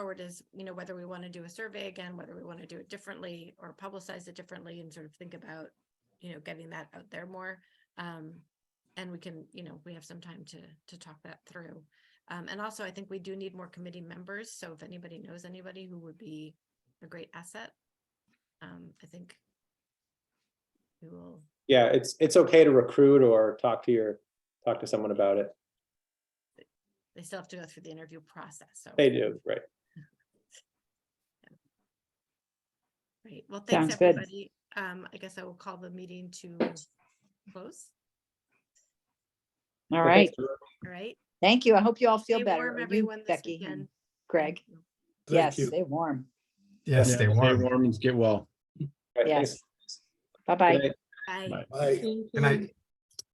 forward is, you know, whether we want to do a survey again, whether we want to do it differently or publicize it differently and sort of think about, you know, getting that out there more. Um, and we can, you know, we have some time to, to talk that through. Um, and also I think we do need more committee members. So if anybody knows anybody who would be a great asset, um, I think we will, Yeah, it's, it's okay to recruit or talk to your, talk to someone about it. they still have to go through the interview process. So, They do, right? great. Well, thanks, Sounds good. everybody. Um, I guess I will call the meeting to close. All Okay, right. so All right. Thank you. I hope you all feel Stay better. warm, You, everyone, this Becky and weekend. Greg, Thank you. yes, Thank you. stay warm. Yes, Yeah, they stay were. Warm and get well. all right, Yes. thanks. Bye-bye. Good night. Bye. Bye. Bye. Good night.